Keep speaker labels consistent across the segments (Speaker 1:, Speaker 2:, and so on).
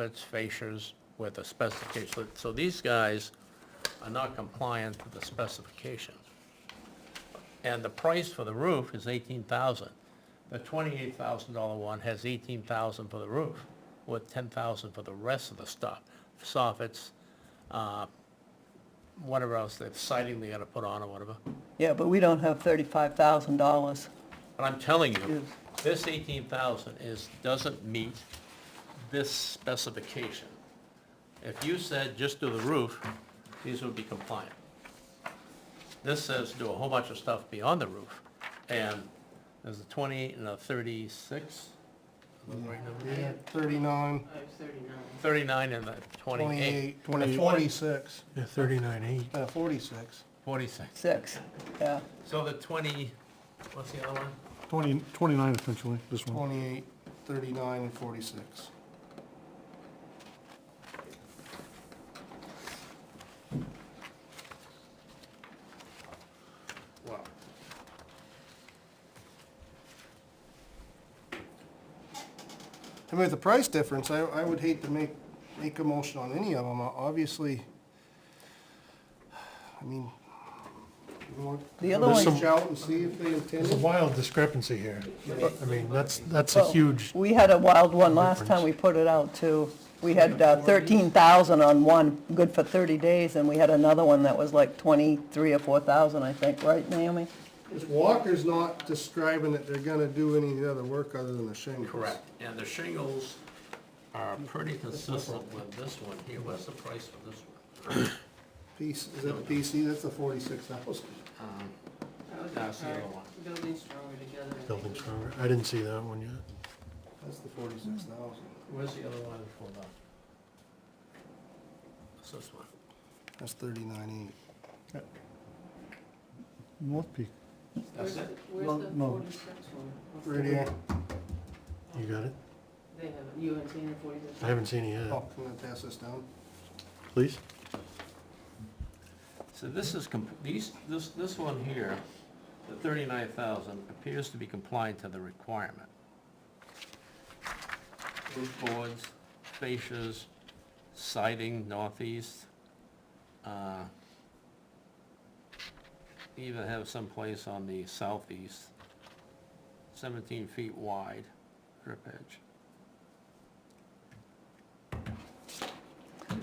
Speaker 1: outlets, fascias with a specification. So- So these guys are not compliant to the specification. And the price for the roof is eighteen thousand. The twenty-eight thousand dollar one has eighteen thousand for the roof, with ten thousand for the rest of the stuff, soffits, uh, whatever else, they're siding they gotta put on or whatever.
Speaker 2: Yeah, but we don't have thirty-five thousand dollars.
Speaker 1: But I'm telling you,
Speaker 2: Yes.
Speaker 1: this eighteen thousand is, doesn't meet this specification. If you said just do the roof, these would be compliant. This says do a whole bunch of stuff beyond the roof, and there's a twenty and a thirty-six,
Speaker 3: We had 39,
Speaker 1: thirty-nine and a twenty-eight.
Speaker 3: 28, 20,
Speaker 1: A
Speaker 3: 46,
Speaker 4: Yeah, thirty-nine eight.
Speaker 3: uh, 46.
Speaker 1: Forty-six.
Speaker 2: Six, yeah.
Speaker 1: So the twenty, what's the other one?
Speaker 4: Twenty, twenty-nine essentially, this one.
Speaker 3: 28, 39, and 46.
Speaker 1: Wow.
Speaker 3: I mean, with the price difference, I, I would hate to make, make a motion on any of them, obviously. I mean, you want
Speaker 2: The other
Speaker 4: There's
Speaker 2: one,
Speaker 4: some-
Speaker 3: reach out and see if they
Speaker 4: There's a
Speaker 3: intend it?
Speaker 4: wild discrepancy here. I mean, that's, that's a
Speaker 2: Well-
Speaker 4: huge,
Speaker 2: we had a wild one last time we put it out too. We had uh, thirteen thousand on one, good for thirty days, and we had another one that was like twenty-three or four thousand, I think, right, Naomi?
Speaker 3: Because Walker's not describing that they're gonna do any other work other than the shingles.
Speaker 1: Correct, and the shingles are pretty consistent with this one here, what's the price for this one?
Speaker 3: Piece, is that the PC? That's the 46,000.
Speaker 1: Um,
Speaker 5: That's
Speaker 1: That's the other one.
Speaker 5: Buildings stronger together. I
Speaker 4: building
Speaker 5: think.
Speaker 4: stronger. I didn't see that one yet.
Speaker 3: That's the 46,000.
Speaker 1: Where's the other one for the? What's this one?
Speaker 3: That's 39,800.
Speaker 4: North Peak.
Speaker 1: That's
Speaker 5: Where's
Speaker 1: it?
Speaker 5: the- Where's the
Speaker 4: No.
Speaker 5: forty-six one? What's the-
Speaker 3: Right here.
Speaker 4: You got it?
Speaker 5: They have, you haven't seen the forty-six?
Speaker 4: I haven't seen it
Speaker 3: Oh,
Speaker 4: yet.
Speaker 3: can I pass this down?
Speaker 4: Please?
Speaker 1: So this is, com- these, this, this one here, the thirty-nine thousand, appears to be compliant to the requirement. Roof boards, fascias, siding northeast, uh, even have some place on the southeast, seventeen feet wide, drip edge.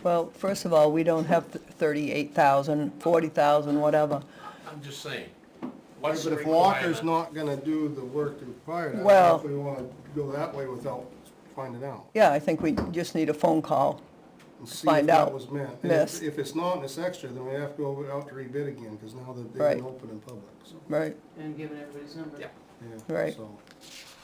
Speaker 2: Well, first of all, we don't have thirty-eight thousand, forty thousand, whatever.
Speaker 1: I'm just saying,
Speaker 3: But
Speaker 1: what's the
Speaker 3: if
Speaker 1: requirement?
Speaker 3: Walker's not gonna do the work required, I
Speaker 2: Well-
Speaker 3: don't know if we wanna go that way without finding out.
Speaker 2: Yeah, I think we just need a phone call.
Speaker 3: and see
Speaker 2: Find
Speaker 3: if that
Speaker 2: out.
Speaker 3: was meant. And if-
Speaker 2: Yes.
Speaker 3: If it's not, and it's extra, then we have to go out to rebid again, because now that they
Speaker 2: Right.
Speaker 3: didn't open in public, so,
Speaker 2: Right,
Speaker 5: And giving everybody's number.
Speaker 1: Yeah.
Speaker 3: yeah.
Speaker 2: Right.
Speaker 3: so. If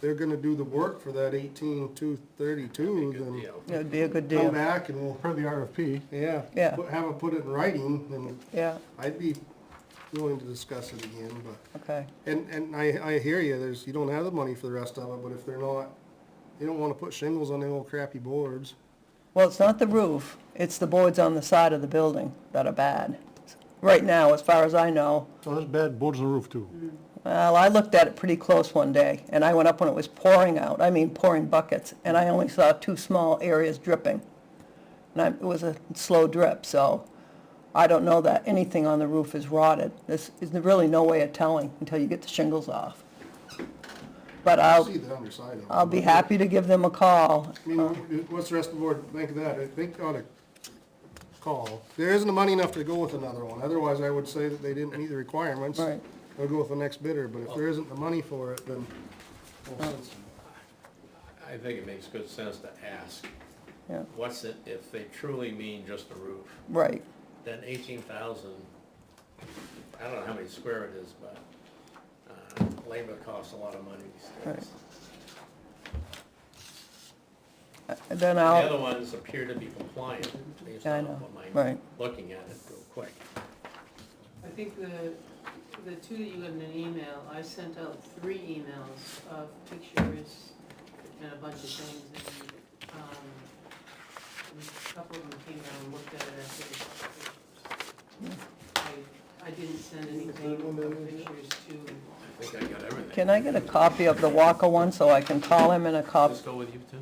Speaker 3: They're gonna do the work for that eighteen two thirty-two,
Speaker 1: Good
Speaker 3: then
Speaker 1: deal.
Speaker 2: it'd be a good
Speaker 3: come
Speaker 2: deal,
Speaker 3: back and we'll,
Speaker 4: Per the RFP,
Speaker 3: yeah.
Speaker 2: Yeah.
Speaker 3: put- Have it put it in writing, then
Speaker 2: yeah,
Speaker 3: I'd be willing to discuss it again, but.
Speaker 2: okay.
Speaker 3: And, and I, I hear you, there's, you don't have the money for the rest of it, but if they're not, they don't wanna put shingles on their old crappy boards.
Speaker 2: Well, it's not the roof, it's the boards on the side of the building that are bad. Right now, as far as I know,
Speaker 4: so oh, that's bad, boards on the roof too.
Speaker 2: well, I looked at it pretty close one day, and I went up when it was pouring out, I mean pouring buckets, and I only saw two small areas dripping. And I, it was a slow drip, so I don't know that anything on the roof is rotted. There's, there's really no way of telling until you get the shingles off. But I'll,
Speaker 3: See the underside of them.
Speaker 2: I'll be happy to give them a call.
Speaker 3: I mean, what's the rest of the board think of that? I think on a call, there isn't the money enough to go with another one, otherwise I would say that they didn't meet the requirements.
Speaker 2: Right.
Speaker 3: They'll go with the next bidder, but if there isn't the money for it, then. well, since-
Speaker 1: I think it makes good sense to ask.
Speaker 2: Yeah.
Speaker 1: What's it, if they truly mean just the roof,
Speaker 2: Right,
Speaker 1: then eighteen thousand, I don't know how many square it is, but, uh, labor costs a lot of money these
Speaker 2: Right.
Speaker 1: days.
Speaker 2: then
Speaker 1: The
Speaker 2: I'll.
Speaker 1: other ones appear to be compliant, based
Speaker 2: Yeah, I
Speaker 1: on
Speaker 2: know.
Speaker 1: what I'm
Speaker 2: Right.
Speaker 1: looking at it real quick.
Speaker 5: I think the, the two that you got in an email, I sent out three emails of pictures and a bunch of things. and, um, A couple of them came down and looked at it after. the- I, I didn't send anything, pictures to
Speaker 1: think I got everything.
Speaker 2: Can I get a copy of the Walker one so I can call him in a cop,
Speaker 1: Just go with you two?